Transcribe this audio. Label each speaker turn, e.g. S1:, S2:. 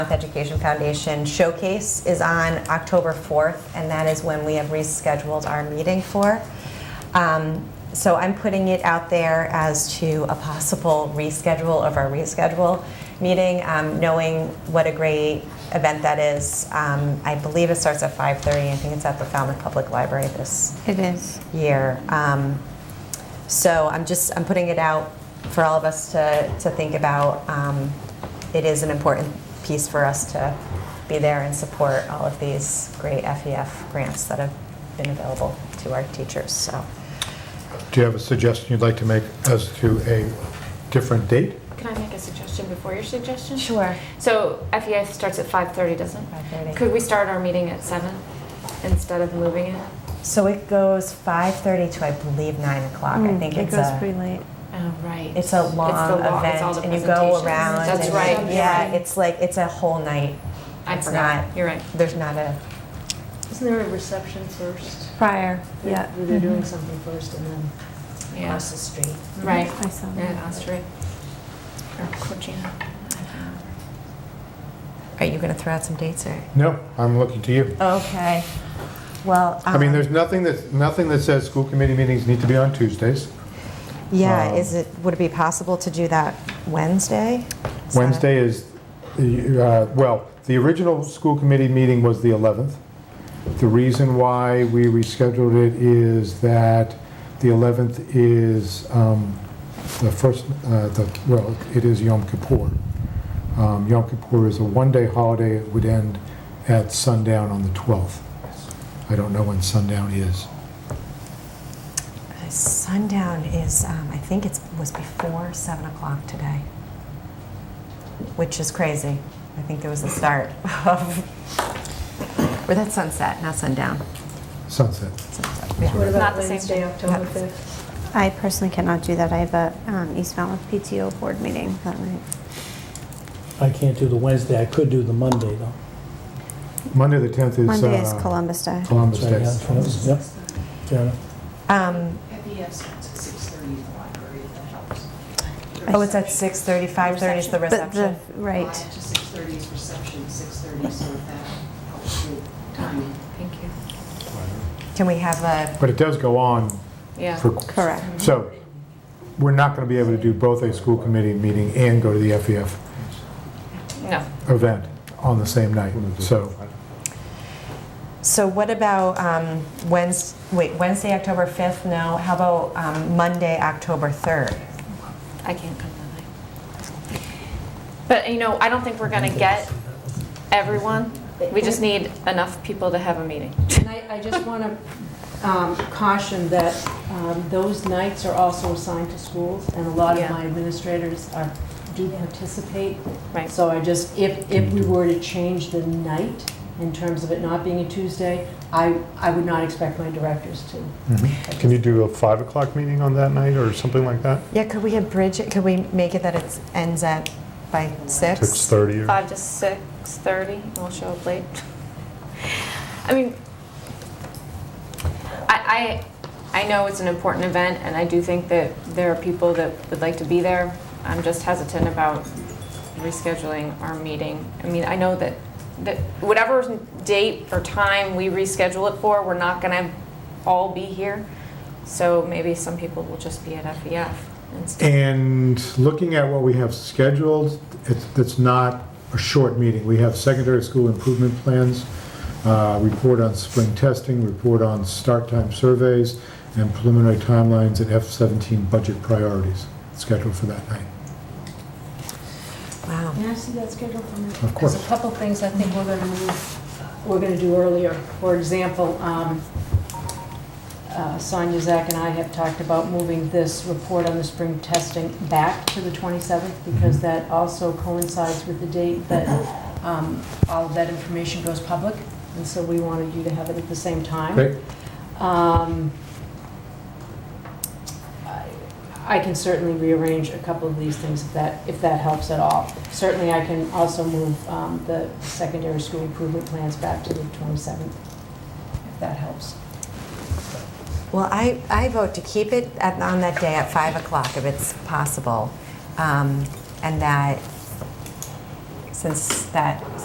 S1: Education Foundation Showcase is on October 4th, and that is when we have rescheduled our meeting for. Um, So I'm putting it out there as to a possible reschedule of our reschedule meeting, um, knowing what a great event that is. Um, I believe it starts at 5:30. I think it's at the Falmouth Public Library this
S2: It is.
S1: year. Um, so I'm just I'm putting it out for all of us to to think about. Um, it is an important piece for us to be there and support all of these great FEF grants that have been available to our teachers. So
S3: Do you have a suggestion you'd like to make as to a different date?
S4: Can I make a suggestion before your suggestion?
S1: sure,
S4: So FEI starts at 5:30, doesn't it?
S1: 5:30.
S4: Could we start our meeting at 7 instead of moving it?
S1: So it goes 5:30 to I believe nine o'clock.
S4: Mm,
S1: I think
S2: Mm, it
S1: it's
S2: goes
S1: a
S2: pretty late.
S4: Oh, right.
S1: it's a long
S4: It's the long- it's
S1: event,
S4: all the
S1: and you go
S4: presentations.
S1: around.
S4: That's
S1: and-
S4: right. you're
S1: Yeah,
S4: right.
S1: it's like it's a whole night.
S4: I
S1: it's
S4: forgot.
S1: not-
S4: You're right.
S1: There's not a
S5: Isn't there a reception first?
S2: Prior, yeah.
S5: They're doing something first and then
S4: Yeah.
S5: across the street.
S4: Right.
S2: I saw that.
S4: Yeah, that's right. Or Georgina.
S1: Are you going to throw out some dates or?
S3: No, I'm looking to you.
S1: Okay. Well,
S3: I mean,
S1: um,
S3: there's nothing that, nothing that says school committee meetings need to be on Tuesdays.
S1: Yeah,
S3: um,
S1: is it, would it be possible to do that Wednesday? Is that a-
S3: Wednesday is, the, uh, well, the original school committee meeting was the 11th. The reason why we rescheduled it is that the 11th is um, the first, uh, the- well, it is Yom Kippur. Um, Yom Kippur is a one-day holiday, it would end at sundown on the 12th. I don't know when sundown is.
S1: Uh, Sundown is, um, I think it was before 7 o'clock today, which is crazy. I think it was the start of, or that's sunset, not sundown.
S3: Sunset.
S1: Sunset, yeah.
S5: What
S4: Not
S5: about
S4: the same
S5: Wednesday,
S4: day.
S5: October
S1: Yeah.
S5: 5th?
S2: I personally cannot do that. I have a um, East Falmouth PTO board meeting that night.
S6: I can't do the Wednesday, I could do the Monday, though.
S3: Monday, the 10th is.
S2: Monday is
S3: uh,
S2: Columbus Day.
S3: Columbus
S6: Sorry,
S3: Day.
S6: yeah, that's what it was, yep, fair enough.
S1: Um,
S7: FES starts at six thirty in the library, if that helps.
S1: Oh, it's at 6:30, 5:30 is the
S2: But the,
S1: reception?
S2: right.
S7: Five to six thirty is reception, six thirty, so if that helps you timing.
S4: Thank you.
S1: Can we have a,
S3: But it does go on
S4: Yeah.
S3: for
S2: Correct.
S3: So, we're not going to be able to do both a school committee meeting and go to the FEF
S4: No.
S3: event on the same night, so.
S1: so what about um, Wednes, wait, Wednesday, October 5th? No, how about um, Monday, October 3rd?
S4: I can't come that night. But, you know, I don't think we're going to get everyone. We just need enough people to have a meeting.
S8: And I, I just want to caution that um, those nights are also assigned to schools, and a lot of
S4: Yeah.
S8: my administrators are, do participate.
S4: Right.
S8: So I just, if, if we were to change the night in terms of it not being a Tuesday, I, I would not expect my directors to.
S9: Can you do a 5 o'clock meeting on that night or something like that?
S1: Yeah, could we have bridge, it? could we make it that it ends at by six?
S9: 6:30 or?
S4: Five to six thirty, and we'll show up late. I mean, I, I, I know it's an important event, and I do think that there are people that would like to be there. I'm just hesitant about rescheduling our meeting. I mean, I know that, that whatever date or time we reschedule it for, we're not gonna all be here. So maybe some people will just be at FEF instead.
S3: And looking at what we have scheduled, it's, it's not a short meeting. We have secondary school improvement plans, uh, report on spring testing, report on start time surveys, and preliminary timelines and F-17 budget priorities scheduled for that night.
S1: Wow.
S5: Can I see that schedule for a minute?
S3: Of
S5: There's
S3: course.
S5: a couple things I think we're going to move,
S8: We're going to do earlier, for example, um, uh, Sonia, Zach, and I have talked about moving this report on the spring testing back to the 27th
S3: Mm-hmm.
S8: because that also coincides with the date that um, all of that information goes public, and so we wanted you to have it at the same time.
S3: Great?
S8: Um, I- I can certainly rearrange a couple of these things if that, if that helps at all. Certainly, I can also move
S5: uh,
S8: um, the secondary school improvement plans back to the 27th, if that helps.
S1: Well, I, I vote to keep it at, on that day at five o'clock if it's possible. Um, and that since that